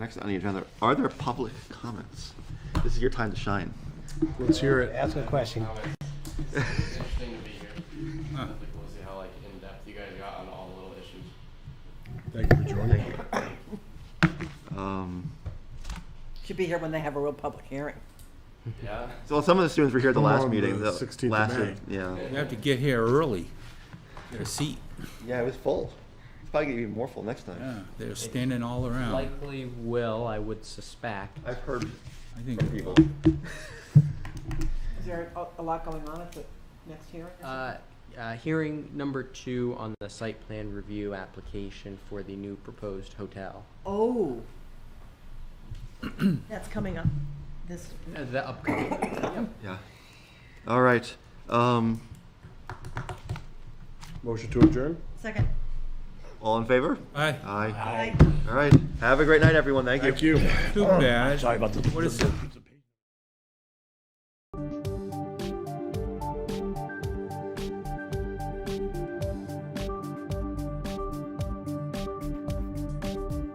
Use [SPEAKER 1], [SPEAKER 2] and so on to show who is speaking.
[SPEAKER 1] Next on the agenda, are there public comments? This is your time to shine.
[SPEAKER 2] Let's hear it.
[SPEAKER 3] Ask a question.
[SPEAKER 4] It's it's interesting to be here. I think we'll see how like in depth you guys got on all the little issues.
[SPEAKER 2] Thank you for joining.
[SPEAKER 1] Um,
[SPEAKER 5] Should be here when they have a real public hearing.
[SPEAKER 4] Yeah.
[SPEAKER 1] So some of the students were here at the
[SPEAKER 2] Come
[SPEAKER 1] last
[SPEAKER 2] on,
[SPEAKER 1] meeting.
[SPEAKER 2] the
[SPEAKER 1] the
[SPEAKER 2] 16th of
[SPEAKER 1] last-
[SPEAKER 2] May.
[SPEAKER 1] Yeah.
[SPEAKER 6] You have to get here early. Their seat,
[SPEAKER 1] Yeah, it was full. It's probably gonna be even more full next time.
[SPEAKER 6] yeah, they're standing all around.
[SPEAKER 7] Likely will, I would suspect.
[SPEAKER 1] I've heard
[SPEAKER 6] I think,
[SPEAKER 1] from people.
[SPEAKER 5] Is there a- a lot going on at the next hearing? or something?
[SPEAKER 7] Uh, uh, Hearing number two on the site plan review application for the new proposed hotel.
[SPEAKER 5] Oh. That's coming up this.
[SPEAKER 7] Uh, The upcoming,
[SPEAKER 1] Yeah. All right. Um,
[SPEAKER 2] Motion to adjourn?
[SPEAKER 5] Second.
[SPEAKER 1] all in favor?
[SPEAKER 6] I,
[SPEAKER 1] Aye. All right. Have a great night, everyone. Thank you.
[SPEAKER 2] Thank you.
[SPEAKER 6] too bad.
[SPEAKER 3] Oh. Sorry about the.
[SPEAKER 6] What is it?